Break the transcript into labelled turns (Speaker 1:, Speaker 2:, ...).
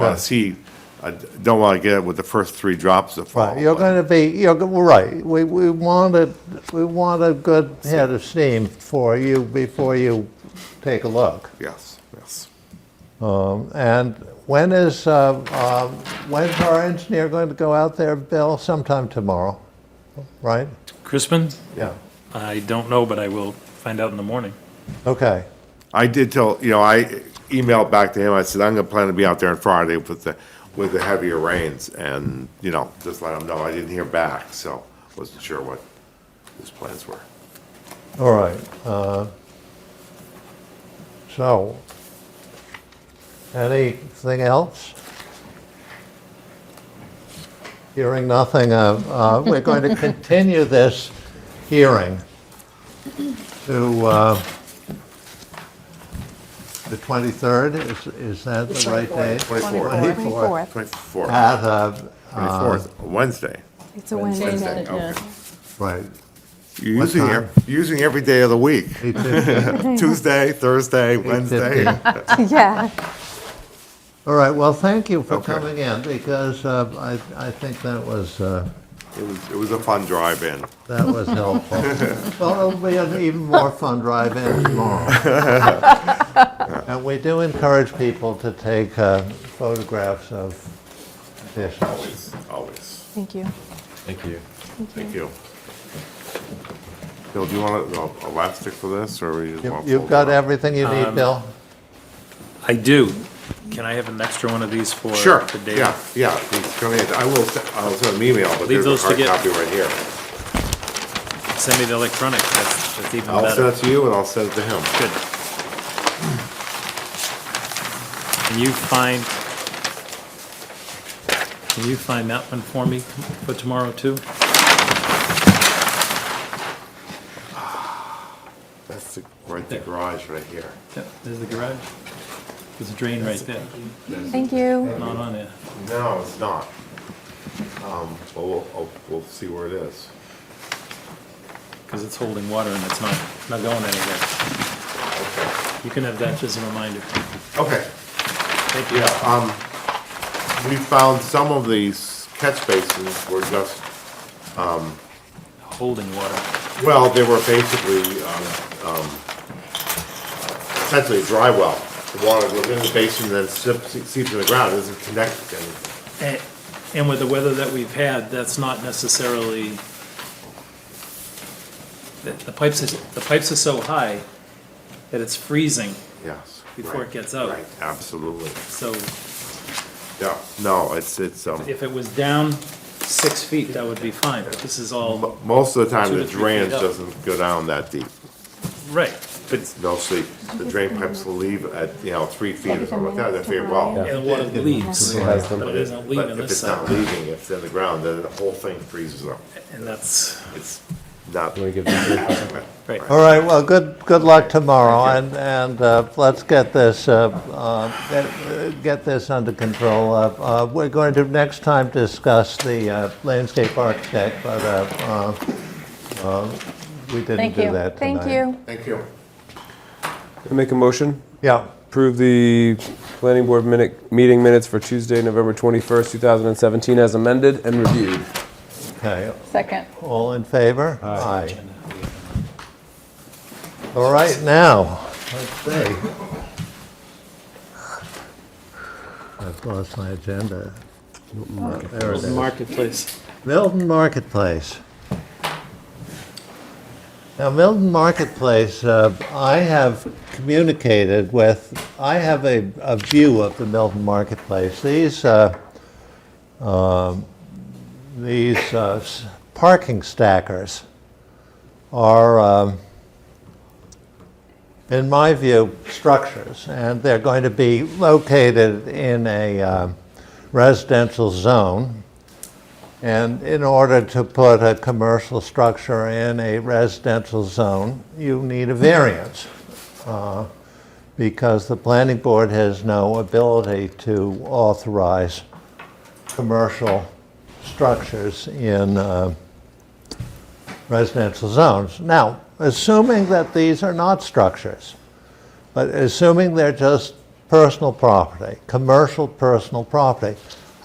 Speaker 1: But see, I don't want to get it with the first three drops of fall.
Speaker 2: Right, you're going to be, you're, go- well, right, we, we want a, we want a good head of steam for you before you take a look. Um,
Speaker 1: Yes, yes.
Speaker 2: And when is, uh, uh, when's our engineer going to go out there, Bill? Sometime tomorrow, right?
Speaker 3: Crispin?
Speaker 2: Yeah.
Speaker 3: I don't know, but I will find out in the morning.
Speaker 2: Okay,
Speaker 1: I did tell, you know, I emailed back to him, I said, I'm gonna plan to be out there on Friday with the, with the heavier rains, and, you know, just let him know, I didn't hear back, so wasn't sure what his plans were.
Speaker 2: all right. uh, So, anything else? Hearing nothing, uh, uh, we're going to continue this hearing to uh, the 23rd, is, is that the right day?
Speaker 1: 24th.
Speaker 2: 24th.
Speaker 1: Twenty-fourth,
Speaker 2: At, uh,
Speaker 1: twenty-fourth, Wednesday.
Speaker 4: It's a Wednesday
Speaker 1: Wednesday,
Speaker 4: night.
Speaker 1: okay.
Speaker 2: right,
Speaker 1: You're using,
Speaker 2: time?
Speaker 1: ev- you're using every day of the week,
Speaker 2: 8:15.
Speaker 1: Tuesday, Thursday, Wednesday.
Speaker 2: 8:15.
Speaker 4: Yeah.
Speaker 2: All right, well, thank you for
Speaker 1: Okay.
Speaker 2: coming in, because uh, I, I think that was, uh,
Speaker 1: It was, it was a fun drive-in.
Speaker 2: that was helpful. Well, it'll be an even more fun drive-in tomorrow. And we do encourage people to take uh, photographs of dishes.
Speaker 1: Always, always.
Speaker 4: Thank you.
Speaker 5: Thank you.
Speaker 1: Thank you. Bill, do you want a- a elastic for this, or we just
Speaker 2: You-
Speaker 1: want?
Speaker 2: You've got everything you need, Bill?
Speaker 3: I do. Can I have an extra one of these for
Speaker 1: Sure,
Speaker 3: the day?
Speaker 1: yeah, yeah, please come in. I will, se- I'll send an email, but
Speaker 3: Leave
Speaker 1: there's a
Speaker 3: those to
Speaker 1: hard
Speaker 3: get-
Speaker 1: copy right here.
Speaker 3: Send me the electronic. That's, that's even
Speaker 1: I'll
Speaker 3: better.
Speaker 1: send it to you and I'll send it to him.
Speaker 3: Good. Can you find, can you find that one for me for tomorrow too?
Speaker 1: That's the, right, the garage right here.
Speaker 3: Yep, there's the garage. There's a drain right there.
Speaker 4: Thank you.
Speaker 3: Not on there.
Speaker 1: No, it's not. Um, but we'll, oh, we'll see where it is.
Speaker 3: Because it's holding water and it's not, not going anywhere.
Speaker 1: Okay,
Speaker 3: You can have that just as a reminder.
Speaker 1: okay,
Speaker 3: Thank you.
Speaker 1: yeah, um, we found some of these catch basins were just
Speaker 3: Holding water.
Speaker 1: Well, they were basically, um, um, essentially a dry well. The water goes in the basin, then seeps seeps in the ground, it doesn't connect to anything.
Speaker 3: And Eh, and with the weather that we've had, that's not necessarily, the the pipes, is- the pipes are so high that it's freezing,
Speaker 1: Yes.
Speaker 3: Before
Speaker 1: right,
Speaker 3: it gets out.
Speaker 1: Right, absolutely.
Speaker 3: so
Speaker 1: Yeah, no, it's, it's, um,
Speaker 3: if it was down six feet, that would be fine, but this is all,
Speaker 1: mo- most of the time,
Speaker 3: Two
Speaker 1: the
Speaker 3: to three feet
Speaker 1: drainage
Speaker 3: up.
Speaker 1: doesn't go down that deep.
Speaker 3: right, but,
Speaker 1: It's no sleep. The drain pipes will leave at, you know, three feet or something like that, they're very well.
Speaker 3: and the water leaves,
Speaker 5: has
Speaker 3: but it isn't
Speaker 1: But
Speaker 3: leaving
Speaker 1: if
Speaker 3: this
Speaker 1: it's not
Speaker 3: side,
Speaker 1: leaving, if it's in the ground, then the whole thing freezes up.
Speaker 3: and that's,
Speaker 1: It's not.
Speaker 5: Do we give them-
Speaker 3: right.
Speaker 2: All right, well, good, good luck tomorrow, and, and uh, let's get this, uh, uh, get- get this under control. Uh, uh, We're going to next time discuss the uh, landscape architect, but uh, uh, uh, we didn't
Speaker 4: Thank
Speaker 2: do
Speaker 4: you.
Speaker 2: that tonight.
Speaker 4: Thank you.
Speaker 1: Thank you.
Speaker 5: Can I Make a motion,
Speaker 2: Yeah,
Speaker 5: approve the planning board minute, meeting minutes for Tuesday, November 21st, 2017 as amended and reviewed.
Speaker 2: okay,
Speaker 4: Second.
Speaker 2: all in favor? Aye. All right, now, let's see. I've lost my agenda. Oh, There it is.
Speaker 3: Marketplace.
Speaker 2: Milton Marketplace. Now, Milton Marketplace, uh, I have communicated with, I have a, a view of the Milton Marketplace. These, uh, um, these uh, s- parking stackers are, um, in my view, structures, and they're going to be located in a um, residential zone. And in order to put a commercial structure in a residential zone, you need a variance uh, because the planning board has no ability to authorize commercial structures in uh, residential zones. Now, assuming that these are not structures, but assuming they're just personal property, commercial personal property.